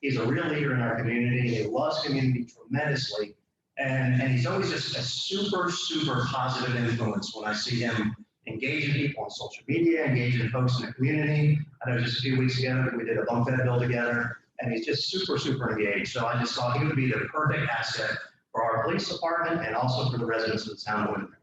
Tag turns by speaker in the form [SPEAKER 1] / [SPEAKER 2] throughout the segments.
[SPEAKER 1] He's a real leader in our community, and he loves community tremendously. And, and he's always just a super, super positive influence when I see him engaging people on social media, engaging folks in the community. I know just a few weeks ago, we did a bump that bill together, and he's just super, super engaged. So I just thought he would be the perfect asset for our police department and also for the residents of the town of Windermere.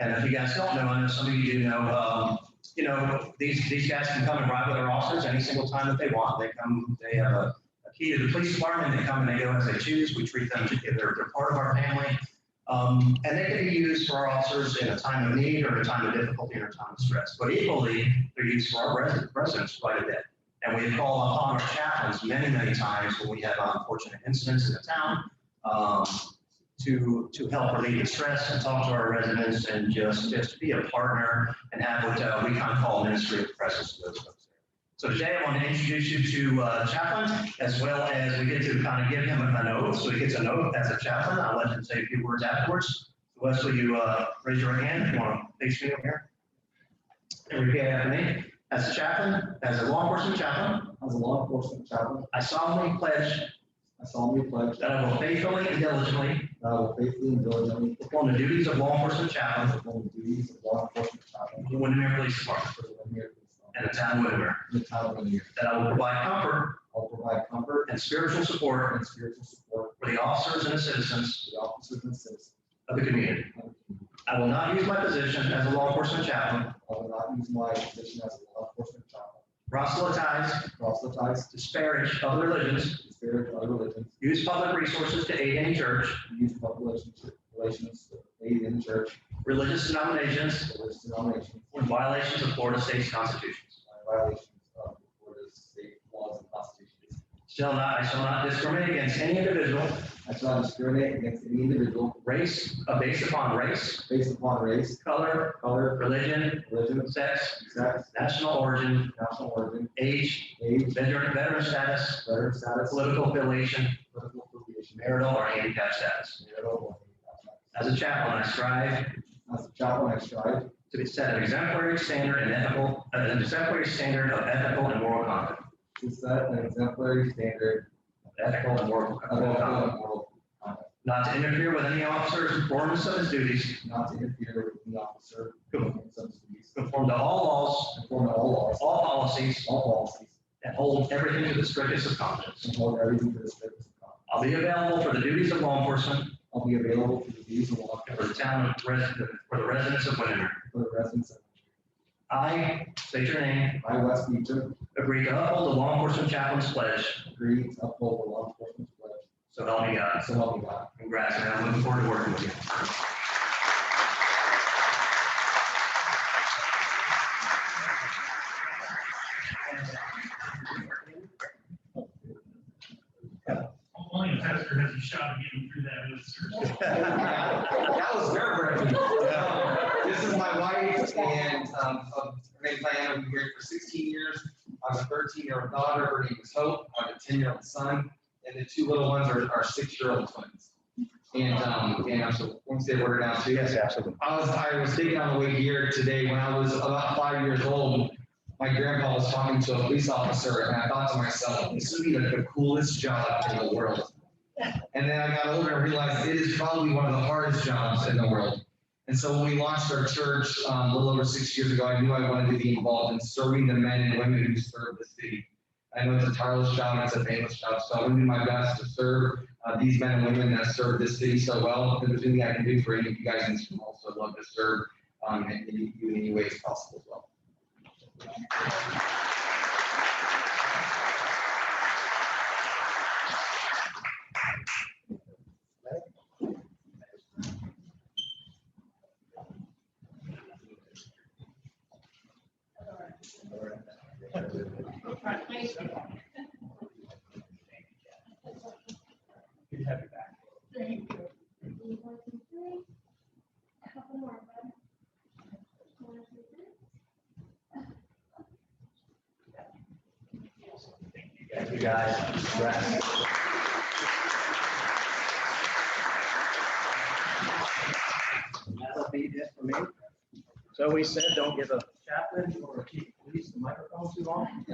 [SPEAKER 1] And if you guys don't know, I know some of you do know, um, you know, these, these guys can come and ride with our officers any single time that they want. They come, they have a a key to the police department, they come and they go as they choose. We treat them, they're, they're part of our family. Um, and they can be used for our officers in a time of need or a time of difficulty or a time of stress. But equally, they're used for our residents, residents quite a bit. And we call upon our chaplains many, many times when we have unfortunate incidents in the town, um, to, to help relieve the stress and talk to our residents and just, just be a partner and have what uh, we kind of call ministry of presence to those folks. So today I want to introduce you to uh, chaplain, as well as we get to kind of give him an oath, so he gets an oath as a chaplain. I'll let him say a few words afterwards. Wes, will you uh, raise your hand if you want to face me over here? And repeat after me. As a chaplain, as a law enforcement chaplain,
[SPEAKER 2] As a law enforcement chaplain,
[SPEAKER 1] I solemnly pledge
[SPEAKER 2] I solemnly pledge that
[SPEAKER 1] that I will faithfully and diligently
[SPEAKER 2] I will faithfully and diligently
[SPEAKER 1] perform the duties of law enforcement chaplain
[SPEAKER 2] perform the duties of law enforcement chaplain
[SPEAKER 1] for the Windermere Police Department
[SPEAKER 2] for the Windermere Police
[SPEAKER 1] and the town of Windermere,
[SPEAKER 2] Department, in the town of Windermere.
[SPEAKER 1] that I will provide comfort
[SPEAKER 2] I'll provide comfort
[SPEAKER 1] and spiritual support
[SPEAKER 2] and spiritual support
[SPEAKER 1] for the officers and the citizens
[SPEAKER 2] to the officers and citizens
[SPEAKER 1] of the community.
[SPEAKER 2] of the community.
[SPEAKER 1] I will not use my position as a law enforcement chaplain,
[SPEAKER 2] I will not use my position as a law enforcement chaplain
[SPEAKER 1] proselytize,
[SPEAKER 2] to proselytize,
[SPEAKER 1] disparage other religions,
[SPEAKER 2] to spirit other religions,
[SPEAKER 1] use public resources to aid any church,
[SPEAKER 2] to use public relations to aid in church,
[SPEAKER 1] religious denominations,
[SPEAKER 2] religious denominations,
[SPEAKER 1] or in violations of Florida state's constitutions.
[SPEAKER 2] and violations of Florida's state laws and constitutions.
[SPEAKER 1] Shall not, I shall not discriminate against any individual,
[SPEAKER 2] I shall not discriminate against any individual
[SPEAKER 1] race, uh, based upon race,
[SPEAKER 2] based upon race,
[SPEAKER 1] color,
[SPEAKER 2] color,
[SPEAKER 1] religion,
[SPEAKER 2] religion,
[SPEAKER 1] sex,
[SPEAKER 2] sex,
[SPEAKER 1] national origin,
[SPEAKER 2] national origin,
[SPEAKER 1] age,
[SPEAKER 2] age,
[SPEAKER 1] veteran, veteran status,
[SPEAKER 2] veteran status,
[SPEAKER 1] political affiliation,
[SPEAKER 2] political affiliation,
[SPEAKER 1] marital or handicap status.
[SPEAKER 2] marital or handicap
[SPEAKER 1] As a chaplain, I strive
[SPEAKER 2] status. As a chaplain, I strive
[SPEAKER 1] to be set an exemplary standard and ethical, an exemplary standard of ethical and moral conduct.
[SPEAKER 2] to set an exemplary standard
[SPEAKER 1] Ethical and moral
[SPEAKER 2] of
[SPEAKER 1] moral
[SPEAKER 2] ethical
[SPEAKER 1] conduct.
[SPEAKER 2] and moral conduct,
[SPEAKER 1] Not to interfere with any officer's performance of his duties,
[SPEAKER 2] not to interfere with the officer in some duties,
[SPEAKER 1] conform to all laws,
[SPEAKER 2] conform to all laws,
[SPEAKER 1] all policies,
[SPEAKER 2] all policies,
[SPEAKER 1] and hold everything to the strictest of confidence.
[SPEAKER 2] and hold everything to the strictest of conduct.
[SPEAKER 1] I'll be available for the duties of law enforcement
[SPEAKER 2] I'll be available for the duties of law
[SPEAKER 1] and for the
[SPEAKER 2] enforcement
[SPEAKER 1] town of resident, for the residents of Windermere.
[SPEAKER 2] for the residents of
[SPEAKER 1] I, state your name,
[SPEAKER 2] I, West Beecham,
[SPEAKER 1] agree to uphold the law enforcement chaplain's pledge,
[SPEAKER 2] agree to uphold the law enforcement pledge,
[SPEAKER 1] so help me God.
[SPEAKER 2] so help me God.
[SPEAKER 1] Congrats, man. I'm looking forward to working with you.
[SPEAKER 3] Only a pastor has a shot at getting through that oath, sir.
[SPEAKER 2] That was nerve wracking. This is my wife and, um, of- her name's Diana, we've been married for sixteen years. I have a thirteen year old daughter, her name is Hope, I have a ten year old son, and the two little ones are, are six year old twins. And, um, and I'm so, once they were now, so yes,
[SPEAKER 1] absolutely.
[SPEAKER 2] I was, I was thinking on the way here today, when I was about five years old, my grandpa was talking to a police officer, and I thought to myself, this would be like the coolest job in the world. And then I got older and realized it is probably one of the hardest jobs in the world. And so when we launched our church, um, a little over six years ago, I knew I wanted to be involved in serving the men and women who serve the city. I know it's a tireless job, it's a painless job, so I'm gonna do my best to serve uh, these men and women that serve this city so well. If there's anything I can do for any of you guys in this room, also I'd love to serve um, in any- you in any way as possible as well.
[SPEAKER 4] Thank you. One, two, three. Couple more, bud. One, two, three.
[SPEAKER 1] Thank you, guys. Congrats. That'll be it for me. So we said, don't give a chaplain or a chief of police the microphone too long.